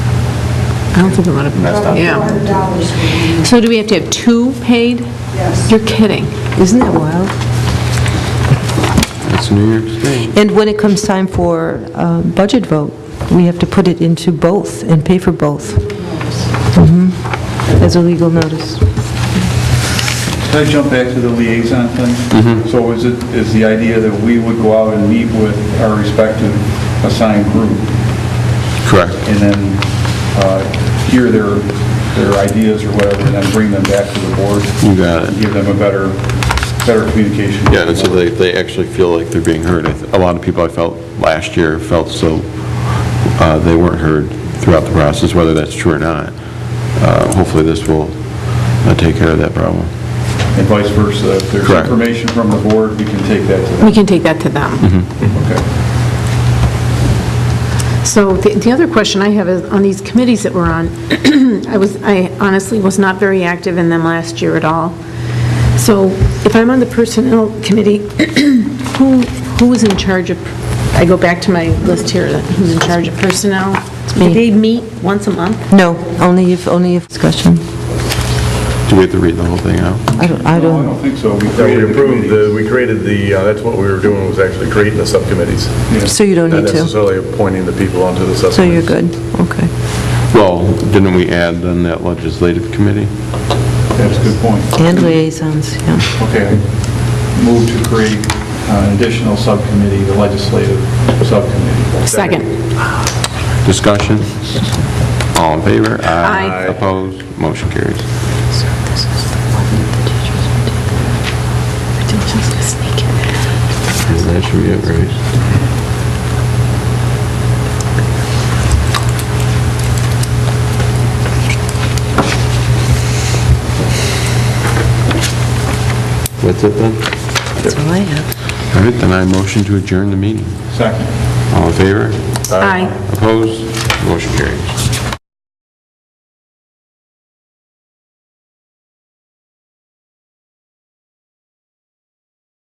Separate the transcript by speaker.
Speaker 1: I don't think a lot of them,
Speaker 2: That's not-
Speaker 1: yeah.
Speaker 3: dollars for you.
Speaker 1: So do we have to have two paid?
Speaker 3: Yes.
Speaker 1: You're kidding. Isn't that wild?
Speaker 2: It's New York State.
Speaker 4: And when it comes time for uh, budget vote, we have to put it into both and pay for both. Mhm. As a legal notice.
Speaker 5: Can I jump back to the liaison thing?
Speaker 2: Mm-hmm.
Speaker 5: So is it, is the idea that we would go out and meet with our respective assigned group
Speaker 2: Correct.
Speaker 5: and then uh, hear their, their ideas or whatever, and then bring them back to the board?
Speaker 2: You got it.
Speaker 5: Give them a better, better communication.
Speaker 2: Yeah, and so they, they actually feel like they're being heard. I th- A lot of people I felt last year felt so, uh, they weren't heard throughout the process, whether that's true or not. Uh, Hopefully, this will uh, take care of that problem.
Speaker 5: And vice versa. If there's
Speaker 2: Correct.
Speaker 5: information from the board, we can take that to
Speaker 1: We
Speaker 5: them.
Speaker 1: can take that to them.
Speaker 5: Okay.
Speaker 1: So the the other question I have is, on these committees that we're on, I was, I honestly was not very active in them last year at all. So if I'm on the Personnel Committee, who, who is in charge of, I go back to my list here, that who's in charge of personnel? Do
Speaker 4: me.
Speaker 1: they meet once a month?
Speaker 4: No, only if, only if discussion.
Speaker 2: Do we have to read the whole thing out?
Speaker 4: I don't, I
Speaker 5: No, I
Speaker 4: don't,
Speaker 5: don't think so. We
Speaker 6: No, we
Speaker 5: created the
Speaker 6: approved, the-
Speaker 5: committee.
Speaker 6: we created the, uh, that's what we were doing, was actually creating the subcommittees.
Speaker 4: so you don't
Speaker 6: Not
Speaker 4: need to.
Speaker 6: necessarily appointing the people onto the subcommittees.
Speaker 4: So you're good, okay.
Speaker 2: Well, didn't we add then that legislative committee?
Speaker 5: That's a good point.
Speaker 4: And liaisons, yeah.
Speaker 5: Okay. Move to create an additional subcommittee, the legislative subcommittee.
Speaker 1: Second.
Speaker 2: Discussion? All in favor?
Speaker 1: Aye.
Speaker 2: Opposed? Motion carries. And That should be it, right? What's it then?
Speaker 4: That's all I have.
Speaker 2: All right, then I motion to adjourn the meeting.
Speaker 5: Second.
Speaker 2: All in favor?
Speaker 1: Aye.
Speaker 2: Opposed? Motion carries.